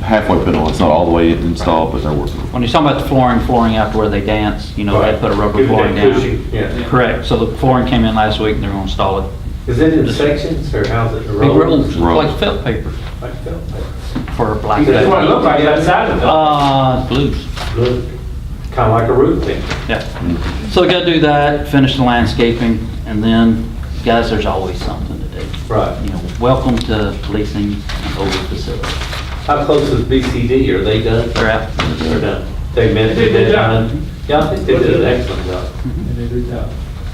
halfway put on, it's not all the way installed, but they're working. When you're talking about the flooring, flooring after where they dance, you know, they put a rubber Give it flooring that down. cushion, Yeah. Correct, so the flooring came in last week and they're gonna install it. Is it in sections or how's it? Big rolls, Rolls. like felt paper Like felt paper. for black. That's what it looked like outside of it. Uh, blues, Looked Kind of like a roof thing. yeah. So we gotta do that, finish the landscaping, and then, guys, there's always something to do. Right. You know, welcome to policing an older facility. How close is BCD? Are they done? They're out. They're done. They meant They to did do good job. done. Yeah, I think they did an excellent job.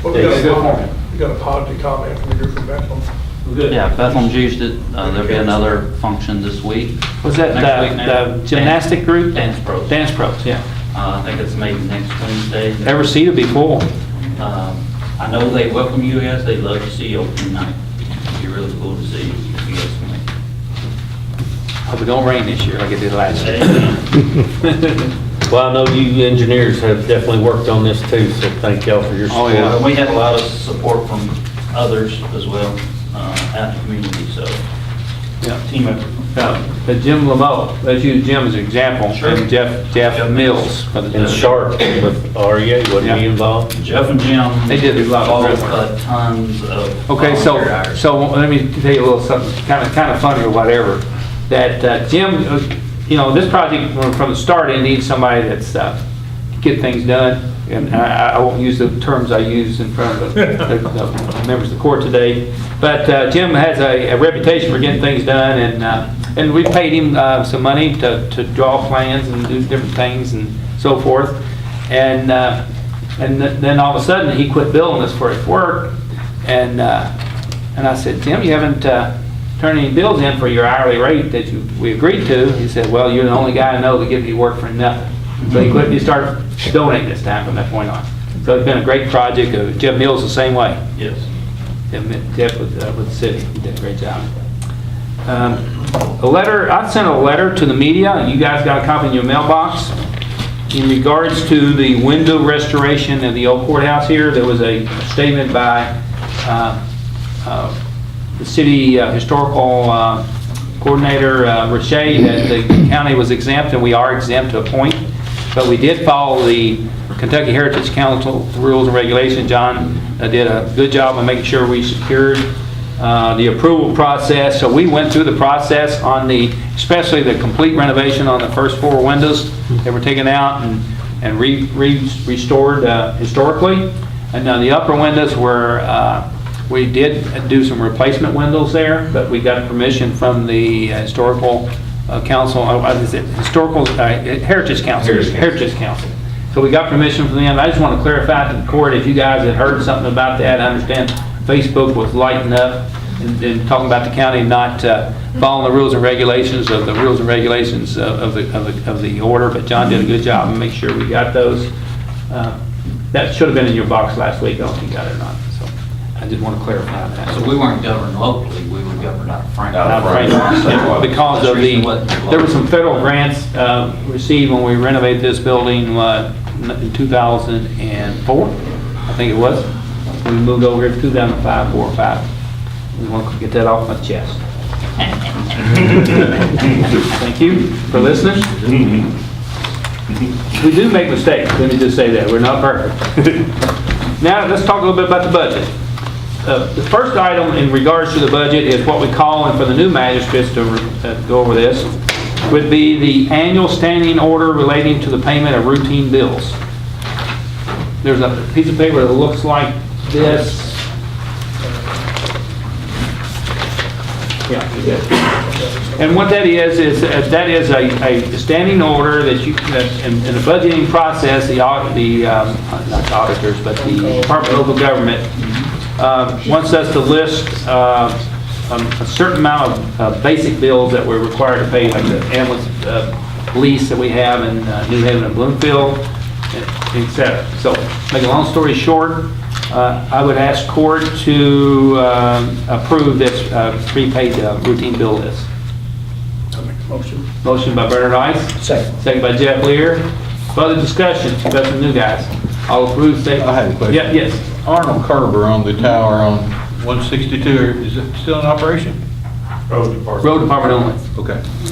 Well, we got a comment- we got a positive comment from the group from Bethel. Yeah, Bethlehem Jews, did- uh, there'll be another function this week. Was that Next week, the- next- the gymnastic group? Dance pros. Dance pros, yeah. Uh, I think it's maybe next Wednesday. Ever see it before? Um, I know they welcome you guys, they love to see you open night. It'd be really cool to see you guys can make it. Hope it don't rain this year like it did last year. Well, I know you engineers have definitely worked on this too, so thank y'all for your Oh, support. yeah. And we had a lot of support from others as well, uh, out in the community, so Yeah. team effort. Uh, But Jim Lamo, let's use Jim as an example, Sure. and Jeff, Jeff Mills. for the- And Sharp with E REA, wasn't he Yeah. involved? Jeff and Jim. They did a lot of Both great work. uh, tons of. Okay, so, volunteer hours. so let me tell you a little something, kind of, kind of funny or whatever, that uh, Jim, uh, you know, this project from- from the start, it needs somebody that's, uh, get things done, and I, I- I won't use the terms I used in front of the- the members of the court today, but uh, Jim has a a reputation for getting things done, and, uh, and we paid him uh, some money to, to draw plans and do different things and so forth, and, uh, and th- then all of a sudden, he quit billing us for his work, and, uh, and I said, Tim, you haven't, uh, turned any bills in for your hourly rate that you, we agreed to. He said, well, you're the only guy I know that gives you work for nothing. So he quit, he started donating this time from that point on. So it's been a great project. Uh, Jeff Mills the same way. Yes. Jeff Mi- Jeff with, uh, with the city, he did a great job. Um, A letter, I sent a letter to the media, you guys got a copy in your mailbox, in regards to the window restoration of the old courthouse here, there was a statement by uh, uh, the city uh, historical uh, coordinator, uh, Roche, that the county was exempt, and we are exempt to a point, but we did follow the Kentucky Heritage Council rules and regulations. John uh, did a good job of making sure we secured uh, the approval process, so we went through the process on the, especially the complete renovation on the first floor windows that were taken out and and re re restored uh, historically. And now the upper windows were, uh, we did do some replacement windows there, but we got permission from the historical uh, council, uh, what is it, historical, uh, Heritage Council. Heritage Council. Heritage Council. So we got permission from them. I just want to clarify to the court, if you guys had heard something about that, I understand Facebook was lighting up and and talking about the county not uh, following the rules and regulations of the rules and regulations uh, of of the, of the- of the order, but John did a good job and make sure we got those. Uh, That should have been in your box last week, I don't know if you got it or not, so I just want to clarify that. So we weren't governed locally, we were governed out of Franklin. Out of Franklin. Yeah, Because of the, there were some federal grants uh, received when we renovated this building, what, in 2004, I think it was. We moved over here in 2005, 4 or 5. We want to get that off my chest. Thank you for listening. We do make mistakes, let me just say that, we're not perfect. Now, let's talk a little bit about the budget. Uh, The first item in regards to the budget is what we call, and for the new magistrates to uh, go over this, would be the annual standing order relating to the payment of routine bills. There's a piece of paper that looks like this. Yeah, it is. And what that is, is uh, that is a, a standing order that you, that in, in the budgeting process, the audit, the, um, not the auditors, but the Department of Local Government, uh, wants us to list, uh, um, a certain amount of, uh basic bills that we're required to pay, like the ambulance, uh, lease that we have in uh, New Haven and Bloomfield, et cetera. So, make a long story short, uh, I would ask court to um, approve this uh, prepaid uh, routine bill list. Motion by Bernard Ice. Second. Second by Jeff Lear. Further discussion, that's some new guys. All approved, say... I have a question. Yeah, yes. Arnold Carver on the tower on 162, is it still in operation? Road department. Road department only. Okay.